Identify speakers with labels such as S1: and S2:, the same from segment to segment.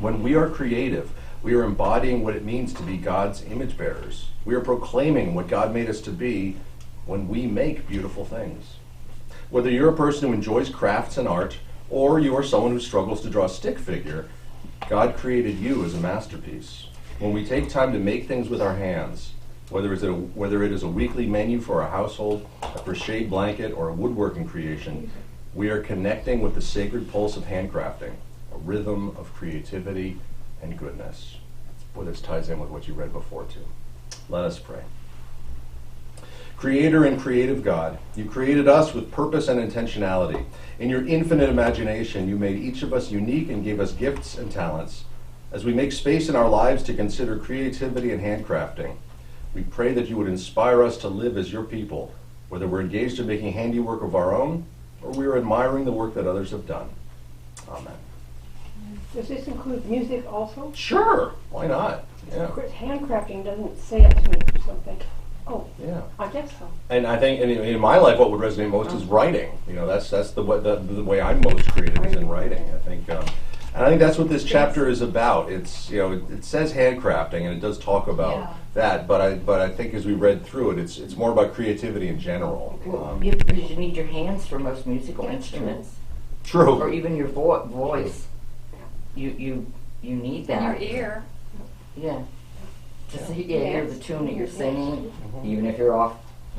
S1: When we are creative, we are embodying what it means to be God's image bearers. We are proclaiming what God made us to be when we make beautiful things. Whether you're a person who enjoys crafts and art, or you are someone who struggles to draw a stick figure, God created you as a masterpiece. When we take time to make things with our hands, whether it's a, whether it is a weekly menu for our household, a crochet blanket, or a woodworking creation, we are connecting with the sacred pulse of handcrafting, a rhythm of creativity and goodness. Boy, this ties in with what you read before too. Let us pray. Creator and creative God, you created us with purpose and intentionality. In your infinite imagination, you made each of us unique and gave us gifts and talents. As we make space in our lives to consider creativity and handcrafting, we pray that you would inspire us to live as your people, whether we're engaged in making handiwork of our own or we are admiring the work that others have done. Amen.
S2: Does this include music also?
S1: Sure, why not?
S2: Of
S1: Yeah,
S2: course, handcrafting doesn't say it to me or something. Oh,
S1: yeah.
S2: I guess so.
S1: And I think in, in my life, what would resonate most is writing. You know, that's that's the, wa- the the way I'm most creative is in writing. I think, um, and I think that's what this chapter is about. It's you know, it, it says handcrafting, and it does talk about
S3: Yeah.
S1: that. But I but I think as we read through it, it's it's more about creativity in general.
S3: Well,
S1: Um,
S3: you, because you need your hands for most musical
S2: That's true.
S3: instruments, or
S1: True.
S3: even your vo- voice. You you you need
S4: Your
S3: that.
S4: ear.
S3: Yeah. To see, yeah, hear the tune that you're singing, even if you're off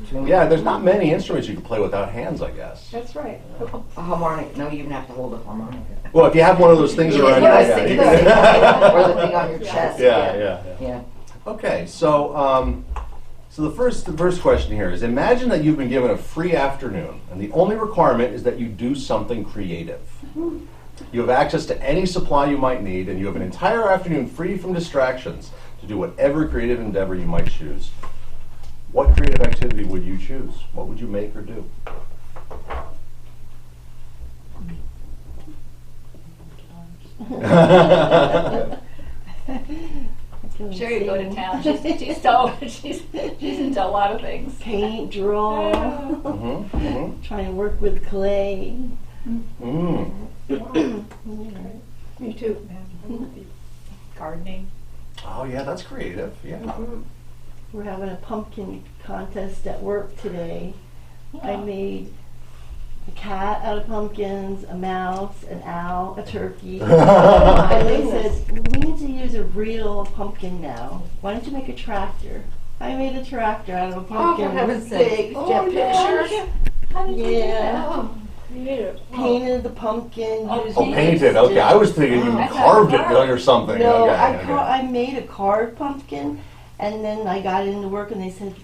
S3: tune.
S1: Mm-hmm. Yeah, there's not many instruments you can play without hands, I guess.
S2: That's right. Oh,
S3: A harmonic. No, you even have to hold a harmonica.
S1: Well, if you have one of those things
S3: Yeah,
S1: around,
S3: yeah, I
S1: yeah,
S3: was
S1: you
S3: thinking the
S1: can-
S3: same thing, or the thing on your chest.
S1: yeah, yeah, yeah.
S3: yeah.
S1: Okay, so um, so the first the first question here is: Imagine that you've been given a free afternoon, and the only requirement is that you do something creative. You have access to any supply you might need, and you have an entire afternoon free from distractions to do whatever creative endeavor you might choose. What creative activity would you choose? What would you make or do? Mm-hmm,
S5: Doing
S4: Sure, you go to
S5: singing.
S4: town. She's she's so she's she's into a lot of things.
S5: Paint, draw,
S1: Mhm, mhm.
S5: try and work with clay.
S1: Mm.
S2: me too.
S4: Gardening.
S1: Oh yeah, that's creative. Yeah.
S5: We're having a pumpkin contest at work today. I made a cat out of pumpkins, a mouse, an owl, a turkey.
S4: Oh
S1: Oh,
S5: And they said, we need to use a real pumpkin now. Why don't you make a tractor? I made a tractor out
S4: Oh,
S5: of a pumpkin.
S2: for heaven's
S5: with
S2: sake.
S5: big
S2: Oh,
S5: jet
S2: yes.
S5: packs.
S4: How did you do
S5: Yeah.
S4: that? Oh,
S2: Yeah.
S5: Painted the pumpkin.
S4: Oh,
S5: used
S1: Oh, painted. Okay, I was thinking you
S4: That's
S1: carved it
S4: how it
S1: or something.
S5: No,
S1: okay,
S5: I,
S1: okay.
S5: car- I made a carved pumpkin, and then I got into work, and they said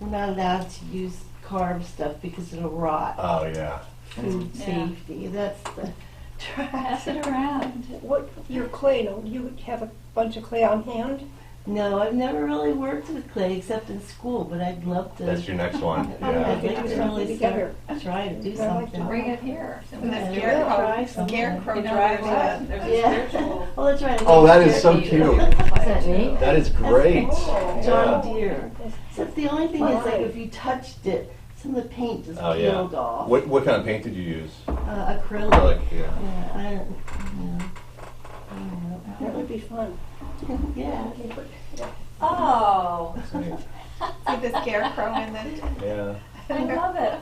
S5: we're not allowed to use carved stuff because it'll rot
S1: Oh yeah.
S5: food
S4: Yeah.
S5: safety. That's the
S4: Pass
S5: trash.
S4: it around.
S2: Oh, What, your clay, no, you have a bunch of clay on hand?
S5: No, I've never really worked with clay except in school, but I'd love to.
S1: That's your next one.
S5: I'd
S1: Yeah.
S2: Okay.
S5: like to really
S2: Together.
S5: start- Try to do
S2: I like
S5: something.
S2: to
S4: Bring it here. So we
S5: Yeah,
S4: have
S5: yeah,
S4: scarecrow-
S5: try something.
S4: Scarecrow
S2: You know
S4: drives
S2: what?
S4: us. There's a
S5: Yeah.
S4: spiritual.
S5: Well, that's right.
S1: Oh, that is so
S4: beauty
S1: cute.
S4: in play,
S3: Isn't it
S4: too.
S3: neat?
S1: That is great.
S2: cool.
S5: John
S1: Yeah.
S5: Deere. So that's the only thing is like
S2: Right.
S5: if you touched it, some of the paint just
S1: Oh, yeah.
S5: peeled off.
S1: What what kind of paint did you use?
S5: Uh, acrylic.
S1: Acrylic. Yeah.
S5: Yeah, I don't, yeah. I don't
S2: That
S5: know.
S2: would be fun.
S5: Yeah.
S4: Oh,
S1: That's neat.
S6: With the scarecrow and the
S1: Yeah.
S4: I love it.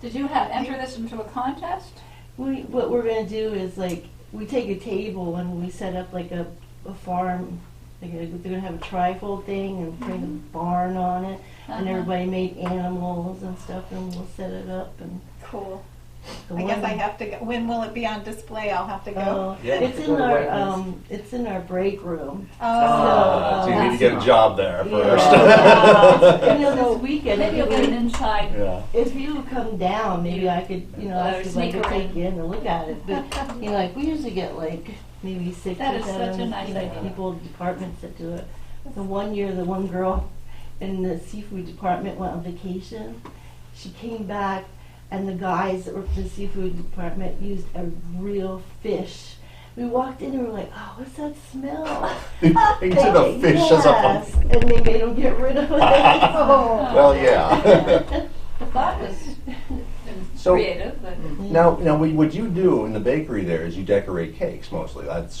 S4: Did you have enter this into a contest?
S5: We, what we're gonna do is like, we take a table and we set up like a, a farm, like a, they're gonna have a trifold thing and bring
S6: Mm-hmm.
S5: a barn on it. And
S4: Uh-huh.
S5: everybody made animals and stuff and we'll set it up and.
S4: Cool.
S5: the
S6: I guess I
S5: one-
S6: have to go. When will it be on display? I'll have to go.
S5: Oh,
S1: Yeah.
S5: it's in
S3: Go to
S5: our,
S3: Wegmans.
S5: um, it's in our break room.
S6: Oh,
S1: Uh, so you need to get a job there first.
S5: Yeah. You know, this weekend,
S4: Maybe you'll get an
S5: if
S4: inside
S1: Yeah.
S5: you, if you come down, maybe I could, you know, I
S4: Or
S5: could like
S4: sneak
S5: take
S4: around.
S5: you in and look at it, but You know, like we usually get like maybe six
S4: That
S5: or
S4: is such
S5: seven
S4: a nice
S5: you know,
S4: idea.
S5: people departments that do it. The one year, the one girl in the seafood department went on vacation. She came back, and the guys that were from the seafood department used a real fish. We walked in and we were like, "Oh, what's that smell?"
S1: you took a fish
S5: yes,
S1: as a pumpkin.
S5: and they made them get rid of it.
S2: Oh,
S1: Well, yeah.
S4: The thought was
S1: So-
S4: creative, but.
S1: now, now, what you do in the bakery there is you decorate cakes mostly. That's